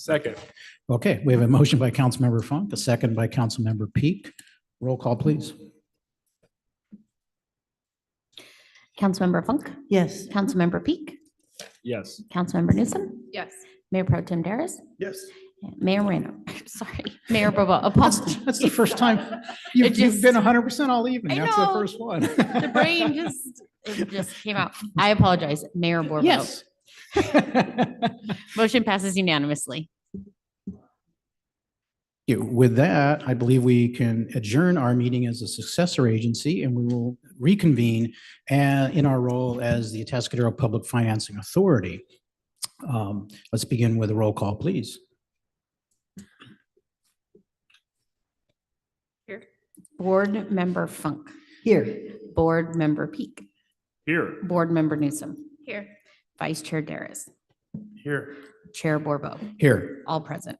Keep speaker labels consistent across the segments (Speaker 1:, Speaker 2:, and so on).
Speaker 1: Second.
Speaker 2: Okay, we have a motion by Councilmember Funk, a second by Councilmember Peak. Roll call, please.
Speaker 3: Councilmember Funk,
Speaker 4: Yes.
Speaker 2: Mm-hmm.
Speaker 3: Councilmember Peak,
Speaker 1: Yes.
Speaker 3: Councilmember Newsom,
Speaker 5: Yes.
Speaker 3: Mayor Pro Tim Daris,
Speaker 1: Yes.
Speaker 3: Mayor Moreno, sorry, Mayor Bobo, apologies.
Speaker 2: That's the first time you've,
Speaker 3: It
Speaker 2: you've been
Speaker 3: just-
Speaker 2: hundred percent all evening.
Speaker 3: I
Speaker 2: That's the
Speaker 3: know.
Speaker 2: first one.
Speaker 3: The brain just, it just came out. I apologize, Mayor Bobo.
Speaker 2: Yes.
Speaker 3: Motion passes unanimously.
Speaker 2: You- With that, I believe we can adjourn our meeting as a successor agency and we will reconvene uh, in our role as the Atascadero Public Financing Authority. Um, Let's begin with a roll call, please.
Speaker 3: Board Member Funk,
Speaker 4: Here.
Speaker 3: Board Member Peak,
Speaker 1: Here.
Speaker 3: Board Member Newsom,
Speaker 5: Here.
Speaker 3: Vice Chair Daris,
Speaker 1: Here.
Speaker 3: Chair Borbo,
Speaker 2: Here.
Speaker 3: all present.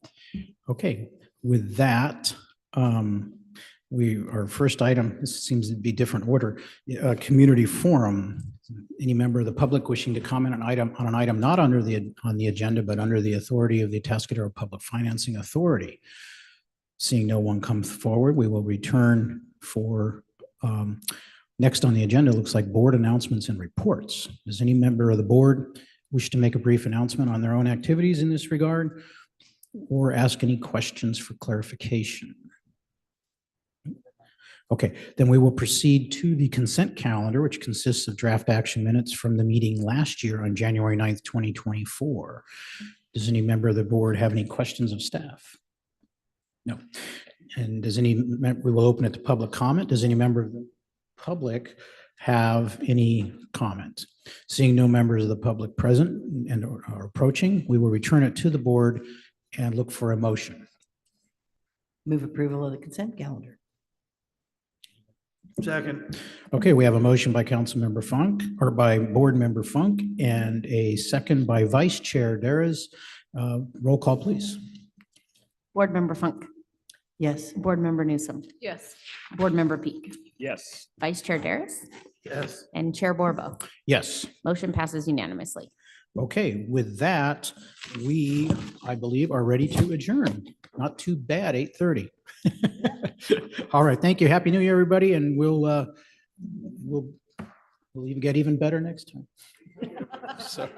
Speaker 2: Okay, with that, um, we, our first item, this seems to be different order, uh, community forum. Any member of the public wishing to comment on item, on an item not under the, on the agenda, but under the authority of the Atascadero Public Financing Authority. Seeing no one come forward, we will return for, um, next on the agenda, looks like board announcements and reports. Does any member of the board wish to make a brief announcement on their own activities in this regard? or ask any questions for clarification? Okay, then we will proceed to the consent calendar, which consists of draft action minutes from the meeting last year on January 9th, 2024. Does any member of the board have any questions of staff? No. And does any, mem- we will open it to public comment. Does any member of the public have any comment? Seeing no members of the public present and or or approaching, we will return it to the board and look for a motion.
Speaker 4: Move approval of the consent calendar.
Speaker 1: Second.
Speaker 2: Okay, we have a motion by Councilmember Funk, or by Board Member Funk, and a second by Vice Chair Daris. Uh, Roll call, please.
Speaker 3: Board Member Funk,
Speaker 4: Yes.
Speaker 3: Board Member Newsom,
Speaker 5: Yes.
Speaker 3: Board Member Peak,
Speaker 1: Yes.
Speaker 3: Vice Chair Daris,
Speaker 1: Yes.
Speaker 3: and Chair Borbo.
Speaker 2: Yes.
Speaker 3: Motion passes unanimously.
Speaker 2: Okay, with that, we, I believe, are ready to adjourn. Not too bad, 8:30. All right, thank you. Happy New Year, everybody, and we'll, uh, we'll, we'll even get even better next time. So.